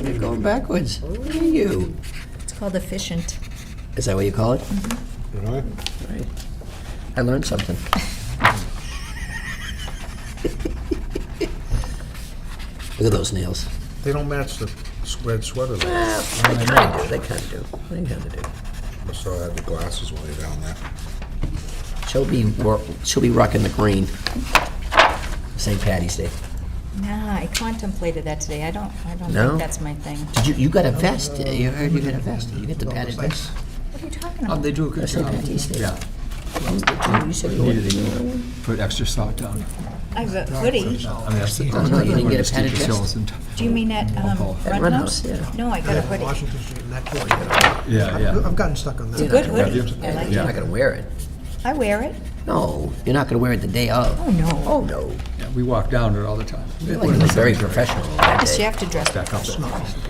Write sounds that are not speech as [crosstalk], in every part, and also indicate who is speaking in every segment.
Speaker 1: working backwards. Look at you.
Speaker 2: It's called efficient.
Speaker 1: Is that what you call it?
Speaker 3: You know?
Speaker 1: Right. I learned [laughs] something. Look at those nails.
Speaker 3: They don't match the s- red sweater. though.
Speaker 1: They kind of do, they kind of do, they kind of do.
Speaker 3: I saw I had the glasses while you're down there.
Speaker 1: She'll be, wor- she'll be rocking the green. St. Patty's Day.
Speaker 2: Nah, I contemplated that today. I don't, I don't
Speaker 1: No?
Speaker 2: think that's my thing.
Speaker 1: Did you, you got a vest, you heard you got a vest, you get the padded vest?
Speaker 2: What are you talking
Speaker 4: Um,
Speaker 2: about?
Speaker 4: They do a good
Speaker 1: St.
Speaker 4: job.
Speaker 1: Patty's Day.
Speaker 4: Yeah,
Speaker 1: You- You said you wanted
Speaker 4: needed to put extra thought down.
Speaker 2: I have a hoodie.
Speaker 4: I mean, that's the.
Speaker 1: Oh, no, you didn't get a padded vest?
Speaker 2: Do you mean at, um,
Speaker 4: At
Speaker 2: Run
Speaker 1: Run
Speaker 2: House?
Speaker 1: House, yeah.
Speaker 2: No, I got a hoodie.
Speaker 5: Washington Street and that corner. you know.
Speaker 4: Yeah,
Speaker 5: I've-
Speaker 4: yeah.
Speaker 5: I've gotten stuck on that.
Speaker 2: It's a good hoodie.
Speaker 4: you?
Speaker 2: I like
Speaker 1: You're
Speaker 2: it.
Speaker 1: not gonna wear it.
Speaker 2: I wear it.
Speaker 1: No, you're not gonna wear it the day of.
Speaker 2: Oh, no.
Speaker 1: Oh, no.
Speaker 4: Yeah, We walk down it all the time.
Speaker 1: You look very professional that
Speaker 2: Yes, you
Speaker 1: day.
Speaker 2: have to dress.
Speaker 4: Back up.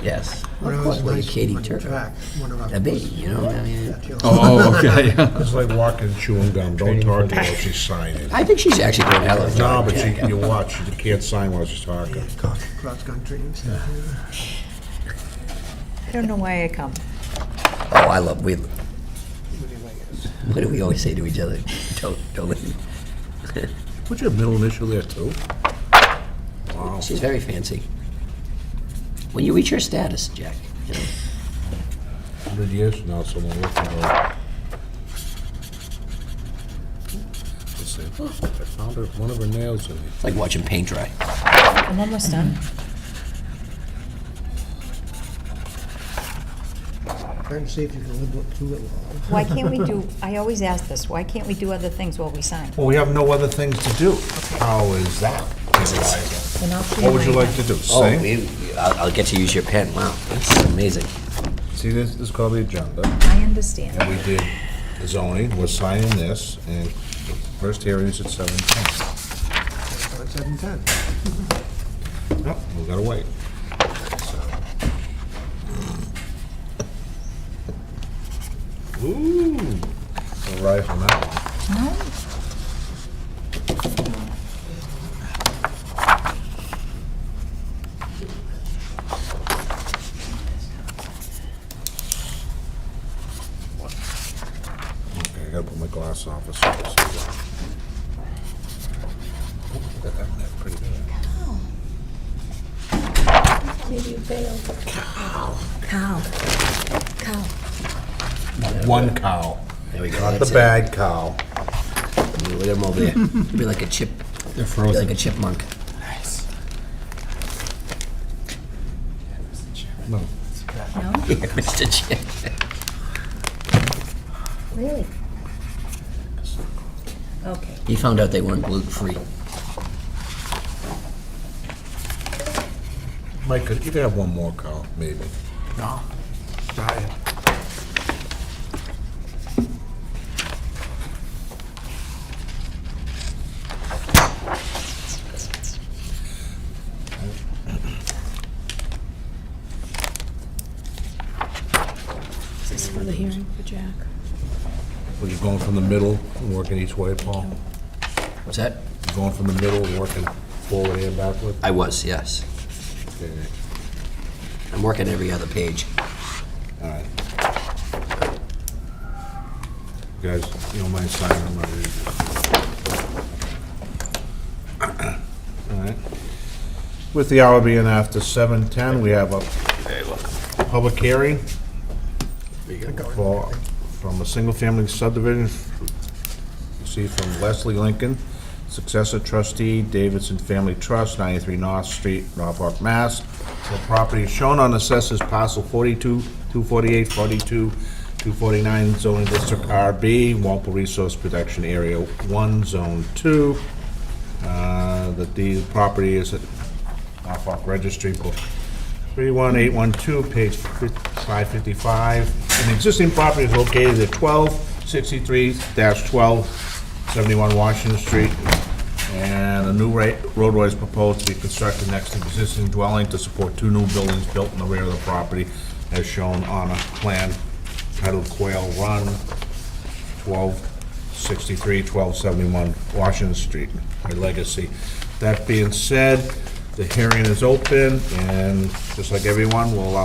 Speaker 1: Yes.
Speaker 5: When I
Speaker 1: Of
Speaker 5: was
Speaker 1: course, well,
Speaker 5: in high
Speaker 1: you're
Speaker 5: school,
Speaker 1: Katie
Speaker 5: we went
Speaker 1: Turner.
Speaker 5: back, one of our-
Speaker 1: A baby, you know, I mean,
Speaker 5: Yeah, you know,
Speaker 4: Oh, okay. [laughs]
Speaker 3: It's like walking, chewing gum, don't talk to her while she's signing.
Speaker 1: I think she's actually doing a hell of a
Speaker 3: No,
Speaker 1: job.
Speaker 3: but you, you watch, you can't sign while she's talking.
Speaker 5: Cross country and stuff.
Speaker 2: I don't know why I come.
Speaker 1: Oh, I love, we, what do we always say to each other? [laughs] Don't, don't listen.
Speaker 3: Put your middle initial there too. Wow.
Speaker 1: She's very fancy. When you reach your status, Jack, you know,
Speaker 3: Hundred years from now, someone will come over. Let's see. I found her, one of her nails in it.
Speaker 1: it's like watching paint dry.
Speaker 2: I'm almost done.
Speaker 1: Mm-hmm.
Speaker 5: Try and see if you can live up to it all.
Speaker 2: Why can't we do, I always ask this, why can't we do other things while we sign?
Speaker 3: Well, we have no other things to do. How is that? Eliza?
Speaker 2: Then I'll clear
Speaker 3: What would you
Speaker 2: my-
Speaker 3: like to do?
Speaker 1: Oh,
Speaker 3: Sing?
Speaker 1: we, I'll, I'll get to use your pen, wow, that's amazing.
Speaker 3: See, this this is called the agenda.
Speaker 2: I understand.
Speaker 3: And we did zoning, we're signing this, and the first hearing is at seven ten.
Speaker 5: So it's seven ten.
Speaker 3: Nope, we gotta wait. So- Ooh, a ride from that one.
Speaker 2: No?
Speaker 3: Okay, I gotta put my glass off. so I can see that. Ooh, Got that one there pretty good.
Speaker 2: Cow. Cow.
Speaker 3: One cow,
Speaker 1: There we go.
Speaker 3: not the
Speaker 1: that's it.
Speaker 3: bad cow.
Speaker 1: You Let him over there. [laughs] You'll be like a chip,
Speaker 4: They're
Speaker 1: you'll be like a
Speaker 4: frozen.
Speaker 1: chipmunk.
Speaker 2: No?
Speaker 3: No,
Speaker 1: [laughs] Yeah, Mr. Chip.
Speaker 2: Really? Okay.
Speaker 1: He found out they weren't gluten-free.
Speaker 3: Mike, could you have one more cow, maybe?
Speaker 5: No. Sorry.
Speaker 6: Is this for the hearing for Jack?
Speaker 3: We're just going from the middle and working each way, Paul?
Speaker 1: Was that?
Speaker 3: Going from the middle and working forward and backward?
Speaker 1: I was, yes. I'm working every other page.
Speaker 3: All right. You Guys, you don't mind signing, I'm not ready to. All right. With the hour being after 7:10, we have a public hearing for, from a single-family subdivision, you see from Leslie Lincoln, successor trustee, Davidson Family Trust, 93 North Street, Norfolk, Mass. The property is shown on assessors parcel 42, 248, 42, 249, zoning district RB, Walpole Resource Protection Area 1, Zone 2. Uh, That the property is at Norfolk Registry Book 31812, page 555. An existing property is located at 1263-12, 71 Washington Street, and a new ra- roadway is proposed to be constructed next to the existing dwelling to support two new buildings built in the rear of the property, as shown on a plan titled Quail Run, 1263, 1271 Washington Street, my legacy. That being said, the hearing is open, and just like everyone, we'll allow